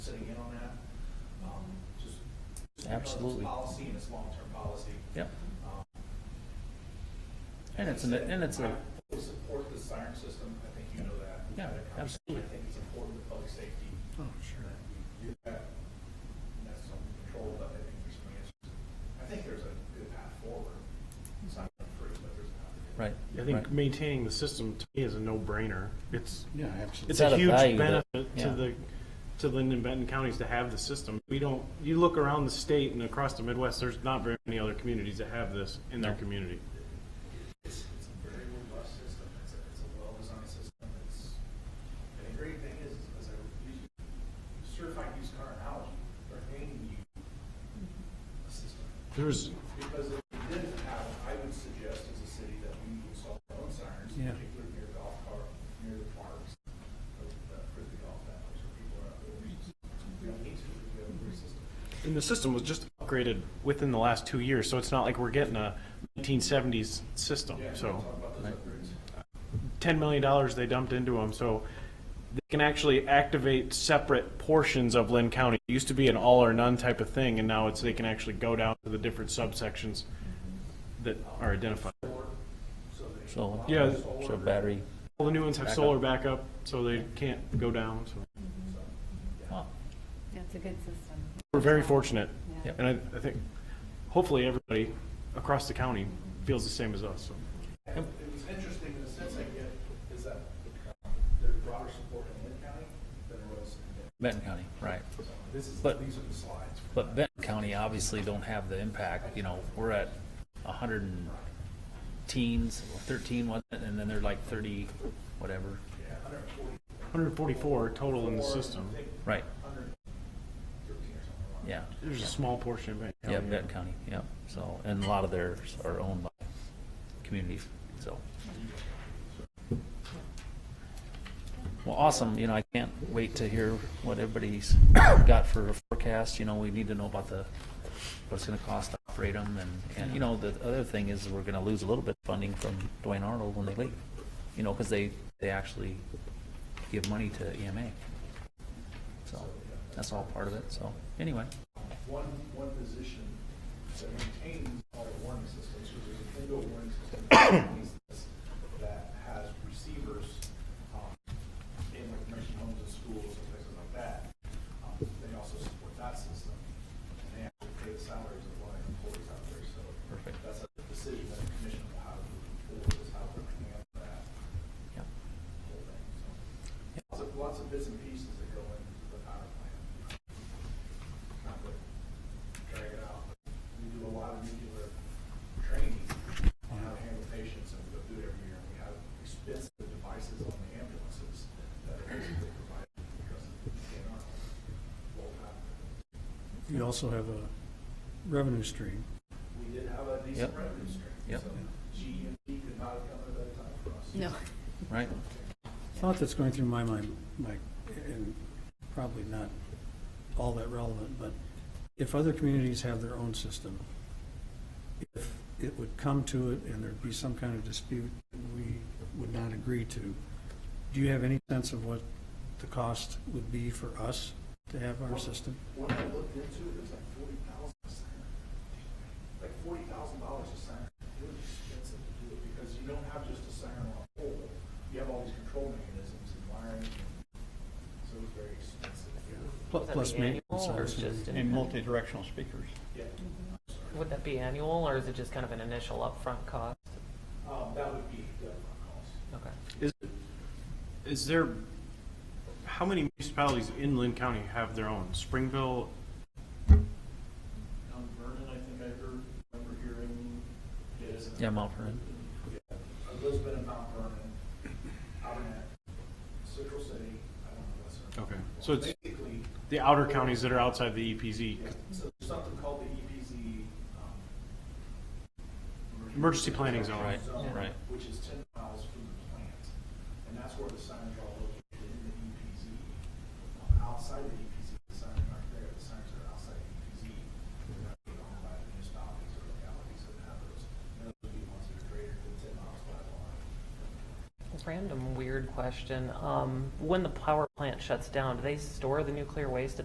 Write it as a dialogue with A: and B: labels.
A: Um, It's
B: Absolutely.
A: policy and it's long-term policy.
B: Yep. And it's, an- and it's a,
A: I support the siren system, I think you know that. We've
B: Yeah,
A: had a conversation.
B: absolutely.
A: I think it's important to public safety. Oh, sure. Do that, and that's some control, but I think there's some answers. I think there's a good path forward. It's not free, but there's a path. forward.
B: right.
C: I
B: right.
C: think maintaining the system to me is a no-brainer. It's,
D: Yeah, absolutely.
B: It's
C: it's
B: at
C: a
B: a
C: huge
B: value that-
C: benefit to
B: yeah.
C: the, to Linden Benton counties to have the system. We don't, you look around the state and across the Midwest, there's not very many other communities that have this in their
B: No.
C: community.
A: It's, it's a very robust system. It's a, it's a well-designed system. It's, and the great thing is, is a used- certified used car analogy, they're handing you a system.
C: There's,
A: Because if we did have, I would suggest as a city that we install our own sirens,
D: Yeah.
A: particularly near golf cart, near the parks, for the for the golf hours, where people are out there. We just- We don't need to, we have a great system.
C: and the system was just upgraded within the last two years, so it's not like we're getting a 1970s system,
A: Yeah,
C: so.
A: Talk about those upgrades.
C: $10 million they dumped into them, so they can actually activate separate portions of Lynn County. It used to be an all or none type of thing, and now it's, they can actually go down to the different subsections that are identified.
B: Solar.
C: Yeah.
B: So battery.
C: All the new ones have solar backup, so they can't go down, so
B: Oh,
E: That's a good system.
C: we're very fortunate.
B: Yep.
C: And I, I think, hopefully, everybody across the county feels the same as us, so.
A: And it was interesting in the sense I get is that um, there's broader support in Lynn County than there was in Denver.
B: Benton County, right.
A: So This is,
B: But-
A: these are the slides.
B: But Benton County obviously don't have the impact, you know, we're at a hundred and teens, thirteen, wasn't it? And then they're like thirty, whatever.
A: Yeah, 140,
C: 144 total in the system.
B: Right,
A: 113 or something. like that.
B: yeah.
C: There's a small portion of it.
B: Yeah, Benton County, yeah. So, and a lot of theirs are owned by communities, so. Well, awesome, you know, I can't wait to hear what everybody's got for a forecast, you know, we need to know about the, what it's gonna cost to operate them, and, and, you know, the other thing is, we're gonna lose a little bit of funding from Dwayne Arnold when they leave, you know, because they, they actually give money to EMA. So, that's all part of it, so, anyway.
A: one, one position that maintains all the warning systems, because there's an indoor warning system that maintains this, that has receivers, um, in like nursing homes and schools and places like that. Um, They also support that system, and they have to pay the salaries of a lot of employees out there, so.
B: Perfect.
A: That's a decision that the commission will have, or is how they're going to handle that
B: Yeah.
A: whole thing, so. Lots of, lots of bits and pieces that go into the power plant. Not to drag it out, but we do a lot of nuclear training on how to handle patients, and we go through it every year, and we have expensive devices on the ambulances that are basically provided because of the DNR. Well, uh,
D: You also have a revenue stream.
A: We did have a decent
B: Yep.
A: revenue stream,
B: Yep.
A: so GMP could not have come at a better time for us.
E: No.
B: Right?
D: Thought that's going through my mind, Mike, and probably not all that relevant, but if other communities have their own system, if it would come to it and there'd be some kind of dispute that we would not agree to, do you have any sense of what the cost would be for us to have our system?
A: When I looked into it, it was like forty thousand a sign. Like forty thousand dollars a sign. It was expensive to do it because you don't have just a siren on a pole. You have all these control mechanisms and wiring. So it was very expensive.
D: Pl-
F: Would that
D: Plus
F: be
D: maintenance.
F: annual or
D: obviously.
F: just an-
G: And multi-directional speakers.
A: Yeah.
F: Would that be annual, or is it just kind of an initial upfront cost?
A: Um, that would be the upfront cost.
F: Okay.
C: Is, is there, how many municipalities in Lynn County have their own? Springville,
A: Mount Vernon, I think I heard, remember hearing, is.
B: Yeah, Mount Vernon.
A: Lisbon and Mount Vernon, Albernac, Central City, I don't know what's.
C: Okay. So it's-
A: Basically,
C: the outer counties that are outside the E EPZ,
A: Yeah, so there's something called the EPZ. um,
C: Emergency planning zone.
B: Right, right.
A: Which is ten miles from the plant, and that's where the signs are all located in the EPZ. Um, Outside the EPZ, the signs aren't there, the signs are outside the EPZ. They're not being owned by the municipalities or localities that have those, and those would be ones that are greater than ten miles by the line.
F: Random weird question. Um, when the power plant shuts down, do they store the nuclear waste